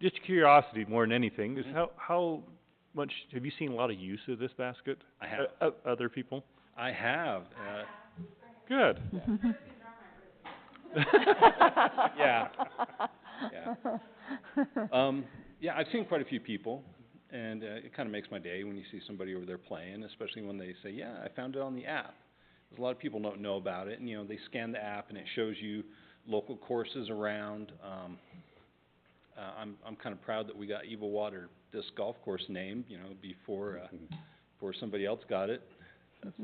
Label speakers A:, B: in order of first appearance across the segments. A: just curiosity more than anything,
B: Mm-hmm.
A: is how, how much, have you seen a lot of use of this basket?
B: I have.
A: O- o- other people?
B: I have, uh,
A: Good.
B: Mm-hmm. uh, Yeah. Um, yeah, I've seen quite a few people, and, uh, it kinda makes my day when you see somebody over there playing, especially when they say, yeah, I found it on the app. 'Cause a lot of people don't know about it, and, you know, they scan the app and it shows you local courses around, um, uh, I'm, I'm kinda proud that we got Evil Water Disc Golf Course named, you know, before, uh, before somebody else got it. That's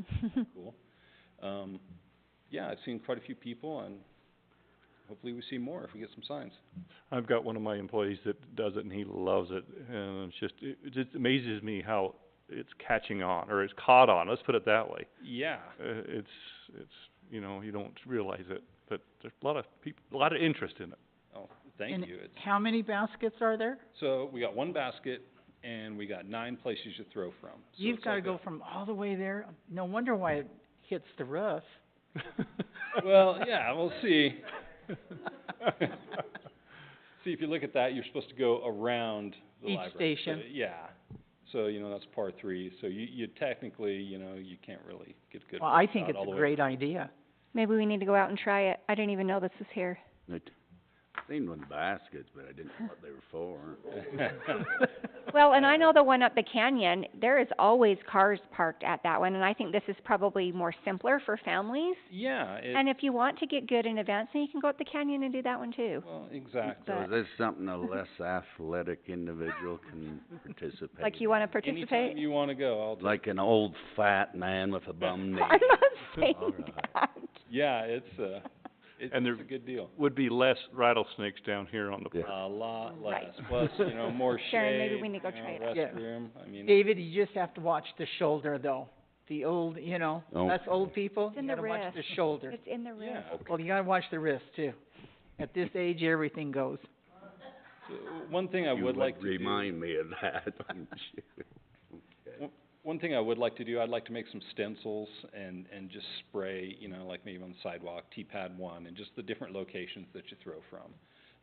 B: cool. Um, yeah, I've seen quite a few people, and hopefully we see more if we get some signs.
A: I've got one of my employees that does it and he loves it, and it's just, it, it just amazes me how it's catching on, or it's caught on, let's put it that way.
B: Yeah.
A: Uh, it's, it's, you know, you don't realize it, but there's a lot of peop- a lot of interest in it.
B: Oh, thank
C: And
B: you. It's-
C: How many baskets are there?
B: So we got one basket, and we got nine places to throw from. So
C: You've
B: it's
C: gotta
B: like
C: go from all the way there, no wonder why it hits the roof.
B: a- Well, yeah, we'll see. See, if you look at that, you're supposed to go around the
C: Each
B: library. So,
C: station.
B: Yeah. So, you know, that's par three, so you, you technically, you know, you can't really get a good
C: Well, I
B: workout
C: think it's
B: all the
C: a
B: way
C: great idea.
D: Maybe we need to go out and try it. I didn't even know this was here.
E: I t- seen one baskets, but I didn't know what they were for.
D: Well, and I know the one up the canyon, there is always cars parked at that one, and I think this is probably more simpler for families.
B: Yeah, it-
D: And if you want to get good in events, then you can go up the canyon and do that one too.
B: well, exactly.
E: So
D: But-
E: is this something a less athletic individual can participate?
D: Like you wanna
B: Anytime
D: participate?
B: you wanna go, I'll,
E: Like an old fat man with a bum knee.
D: I'm not saying
E: Alright.
D: that.
B: yeah, it's, uh, it-
A: And
B: it's
A: they're-
B: a good deal.
A: Would be less rattlesnakes down here on the
B: A
E: Yeah.
B: lot
D: Right.
B: less, plus, you know, more
D: Sharon, maybe
B: shade,
D: we need to go
B: you
D: try
B: know,
D: it out.
C: Yeah.
B: restroom, I mean,
C: David, you just have to watch the shoulder though. The old, you know,
E: Oh.
C: us old people,
D: It's in
C: you
D: the
C: gotta watch the
D: wrist.
C: shoulder.
D: It's in the room.
B: yeah.
C: Well, you gotta watch the wrist too. At this age, everything goes.
B: So, One thing I
E: You
B: would like to do.
E: Remind me of that.
B: One thing I would like to do, I'd like to make some stencils and, and just spray, you know, like maybe on the sidewalk, T-pad one, and just the different locations that you throw from.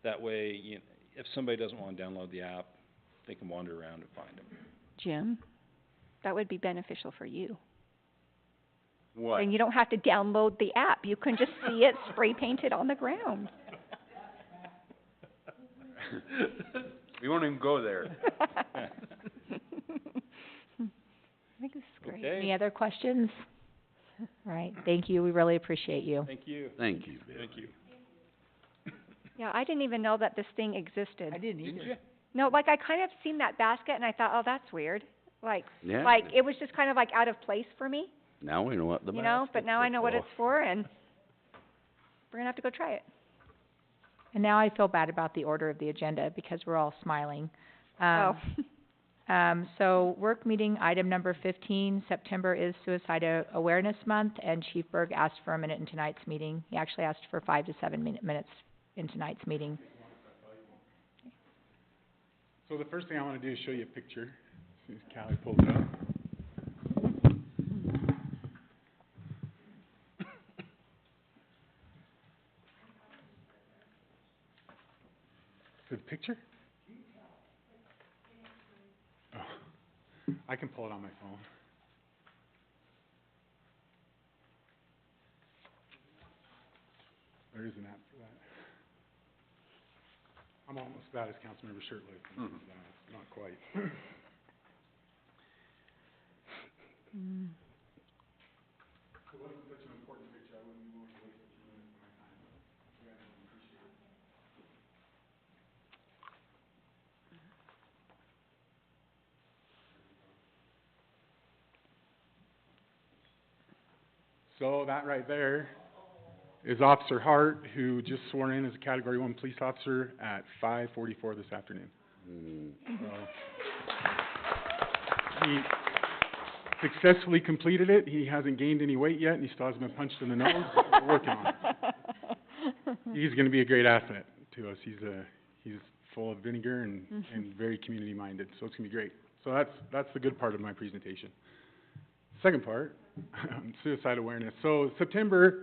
B: That way, you, if somebody doesn't wanna download the app, they can wander around and find them.
C: Jim?
D: That would be beneficial for you.
E: What?
D: And you don't have to download the app. You can just see it spray painted on the ground.
E: We won't even go there.
D: I think this is great.
B: Okay,
F: Any other questions? All right, thank you, we really appreciate you.
B: thank you.
E: Thank you, Bill.
B: you.
D: Yeah, I didn't even know that this thing existed.
C: I didn't either.
B: Didn't you?
D: No, like I kind of seen that basket and I thought, oh, that's weird. Like,
E: Yeah.
D: like it was just kind of like out of place for me,
E: Now we know what the
D: you know, but
E: baskets
D: now I
E: are
D: know what
E: for.
D: it's for and we're gonna have to go try it.
F: And now I feel bad about the order of the agenda because we're all smiling.
D: Oh,
F: Um, um, so work meeting item number fifteen, September is Suicide A- Awareness Month and Chief Berg asked for a minute in tonight's meeting. He actually asked for five to seven min- minutes in tonight's meeting.
G: So the first thing I wanna do is show you a picture, as soon as Callie pulls it up. Good picture? Oh, I can pull it on my phone. There is an app for that. I'm almost about as Councilmember Shirtley, but it's not quite. So that right there is Officer Hart, who just sworn in as a Category One Police Officer at five forty-four this afternoon.
E: Mm.
G: He successfully completed it, he hasn't gained any weight yet, and he still hasn't been punched in the nose, but we're working on it. He's gonna be a great asset to us, he's a, he's full of vinegar and, and very community-minded, so it's gonna be great. So that's, that's the good part of my presentation. Second part, suicide awareness. So September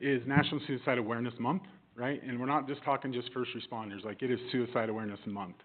G: is National Suicide Awareness Month, right? And we're not just talking just first responders, like, it is Suicide Awareness Month.